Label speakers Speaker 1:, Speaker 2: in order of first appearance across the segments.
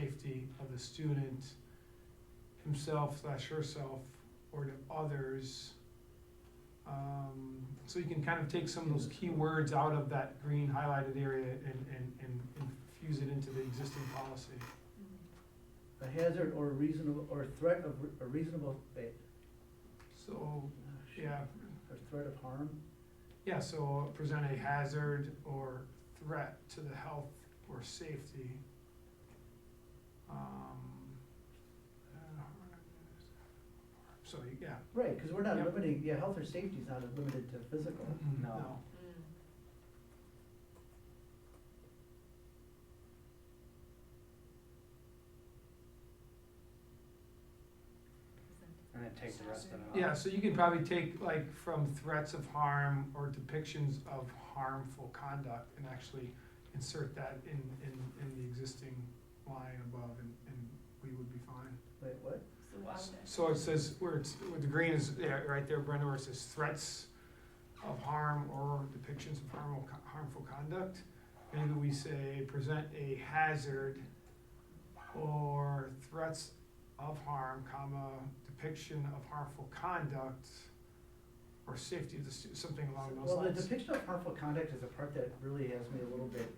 Speaker 1: safety of the student himself slash herself or to others. Um, so you can kind of take some of those key words out of that green highlighted area and, and, and infuse it into the existing policy.
Speaker 2: A hazard or reasonable, or threat of, re- a reasonable, eh,
Speaker 1: So, yeah,
Speaker 2: or threat of harm,
Speaker 1: yeah, so present a hazard or threat to the health or safety. Um, uh, so, yeah.
Speaker 2: right, cause we're not
Speaker 1: Yep.
Speaker 2: limiting, yeah, health or safety is not limited to physical.
Speaker 1: No.
Speaker 3: And then take the rest of it out.
Speaker 1: Yeah, so you can probably take like from threats of harm or depictions of harmful conduct and actually insert that in, in, in the existing line above and, and we would be fine.
Speaker 2: Wait, what?
Speaker 1: So it says, where it's, where the green is, yeah, right there, Brenda, where it says threats of harm or depictions of harmful, co- harmful conduct. Maybe we say present a hazard or threats of harm, comma, depiction of harmful conduct or safety of the stu- something along those
Speaker 2: Well, the
Speaker 1: lines.
Speaker 2: depiction of harmful conduct is the part that really has me a little bit,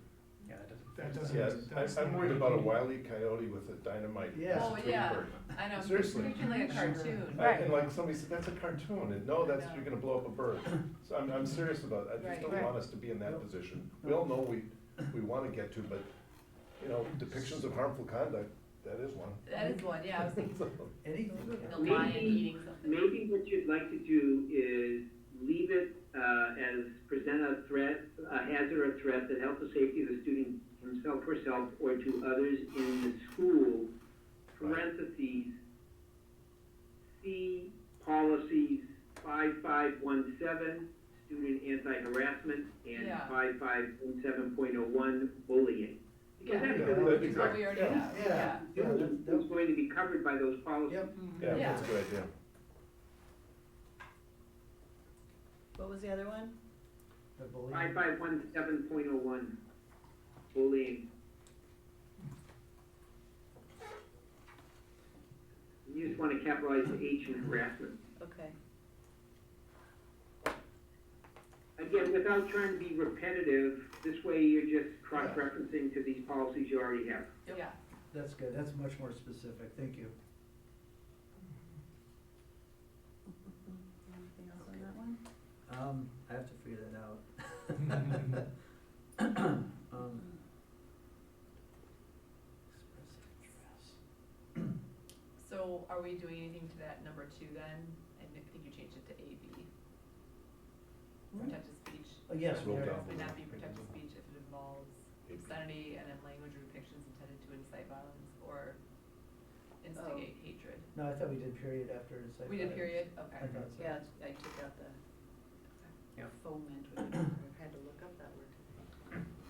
Speaker 3: Yeah, that doesn't.
Speaker 1: That doesn't-
Speaker 4: Yes,
Speaker 1: that's
Speaker 4: I, I'm
Speaker 1: not-
Speaker 4: worried about a wily coyote with a dynamite.
Speaker 2: Yeah.
Speaker 4: as a
Speaker 5: Oh,
Speaker 4: twin
Speaker 5: yeah.
Speaker 4: bird.
Speaker 5: I know,
Speaker 4: Seriously.
Speaker 5: particularly a cartoon.
Speaker 4: I- And like somebody said, that's a cartoon, and no, that's, you're gonna blow up a bird. So I'm, I'm serious about it, I just
Speaker 5: Right.
Speaker 4: don't want us to be in that
Speaker 2: Right.
Speaker 4: position. We all know we, we wanna get to, but, you know, depictions of harmful conduct, that is one.
Speaker 5: That is one, yeah, I was thinking
Speaker 2: anything can.
Speaker 5: the lion eating something.
Speaker 6: Maybe what you'd like to do is leave it uh, as present a threat, a hazard or threat that health or safety of the student himself, herself, or to others in the school, parentheses, see policies five five one seven, student anti-harassment, and
Speaker 5: Yeah.
Speaker 6: five five one seven point oh one, bullying. Because
Speaker 5: Yeah.
Speaker 6: that's
Speaker 4: Yeah, that'd
Speaker 6: going
Speaker 4: be
Speaker 6: to
Speaker 5: What we already have, yeah.
Speaker 2: Yeah, yeah, that- that-
Speaker 6: going to be covered by those policies.
Speaker 2: yep,
Speaker 4: Yeah, that's a
Speaker 5: Yeah.
Speaker 4: good idea.
Speaker 7: What was the other one?
Speaker 2: the bullying,
Speaker 6: Five five one seven point oh one, bullying. You just wanna capitalize the H in harassment.
Speaker 7: Okay.
Speaker 6: Again, without trying to be repetitive, this way you're just cross-referencing to these policies you already have.
Speaker 5: Yeah,
Speaker 2: that's good, that's much more specific, thank you.
Speaker 7: Anything else on that one?
Speaker 2: Um, I have to figure that out. Um, express address.
Speaker 5: so are we doing anything to that number two then? I think I think you changed it to A B. Protected speech.
Speaker 2: Oh, yes,
Speaker 4: Roll
Speaker 2: we are.
Speaker 4: down.
Speaker 5: May not be protected speech if it involves obscenity and then language or depictions intended to incite violence or instigate hatred.
Speaker 2: Oh. No, I thought we did period after incitement.
Speaker 5: We did period,
Speaker 2: I
Speaker 5: okay.
Speaker 2: thought so.
Speaker 7: Yeah, I took out the
Speaker 3: Yep.
Speaker 7: foment, I had to look up that word.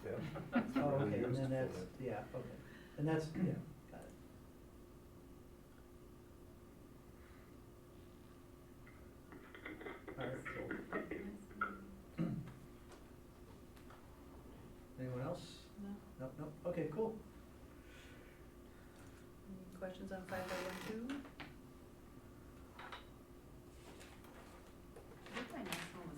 Speaker 4: Yeah.
Speaker 2: Oh, okay,
Speaker 4: Used
Speaker 2: and
Speaker 4: for
Speaker 2: then that's,
Speaker 4: that.
Speaker 2: yeah, okay, and that's, yeah, got it. Alright, cool. Anyone else?
Speaker 7: No.
Speaker 2: Nope, nope, okay, cool.
Speaker 7: Any questions on five oh one two?
Speaker 5: I think my next one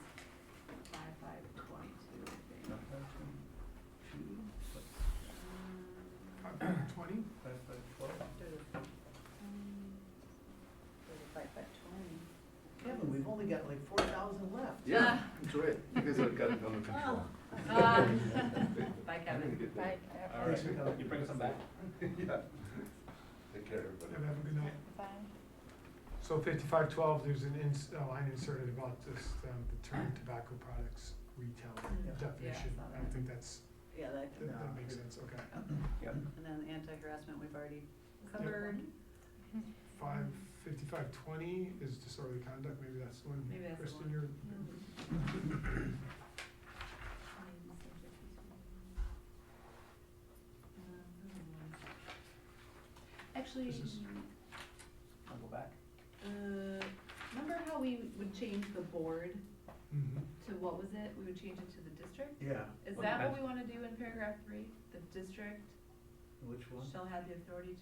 Speaker 5: was five five twenty-two, I think.
Speaker 2: Five, two, what,
Speaker 5: Um,
Speaker 1: Twenty?
Speaker 2: five, five, twelve?
Speaker 7: Five by twenty.
Speaker 2: Kevin, we've only got like four thousand left.
Speaker 4: Yeah, that's right, you guys have got it under control.
Speaker 5: Ah. Bye,
Speaker 4: I'm gonna
Speaker 5: Kevin.
Speaker 4: get that.
Speaker 3: All
Speaker 2: Thanks for coming.
Speaker 3: right, you bring some back?
Speaker 4: Yeah. Take care, everybody.
Speaker 1: Have a good night.
Speaker 7: Five.
Speaker 1: So fifty-five twelve, there's an ins, a line inserted about this, um, the term tobacco products retail
Speaker 2: Yeah, I
Speaker 1: definition.
Speaker 5: Mm,
Speaker 1: I
Speaker 5: saw
Speaker 1: don't
Speaker 5: that.
Speaker 1: think that's,
Speaker 7: Yeah, that,
Speaker 1: that, that
Speaker 2: No.
Speaker 1: makes sense, okay.
Speaker 3: Yep.
Speaker 7: and then the anti-harassment we've already covered.
Speaker 1: Five, fifty-five twenty is disorderly conduct, maybe that's the one,
Speaker 5: Maybe that's the
Speaker 1: Kristen,
Speaker 5: one.
Speaker 1: you're.
Speaker 5: Actually,
Speaker 1: This is-
Speaker 3: I'll go back.
Speaker 5: uh, remember how we would change the board
Speaker 1: Mhm.
Speaker 5: to what was it? We would change it to the district?
Speaker 2: Yeah,
Speaker 5: Is
Speaker 3: Well,
Speaker 5: that what
Speaker 3: that's-
Speaker 5: we wanna do in paragraph three? The district
Speaker 2: Which one?
Speaker 5: shall have the authority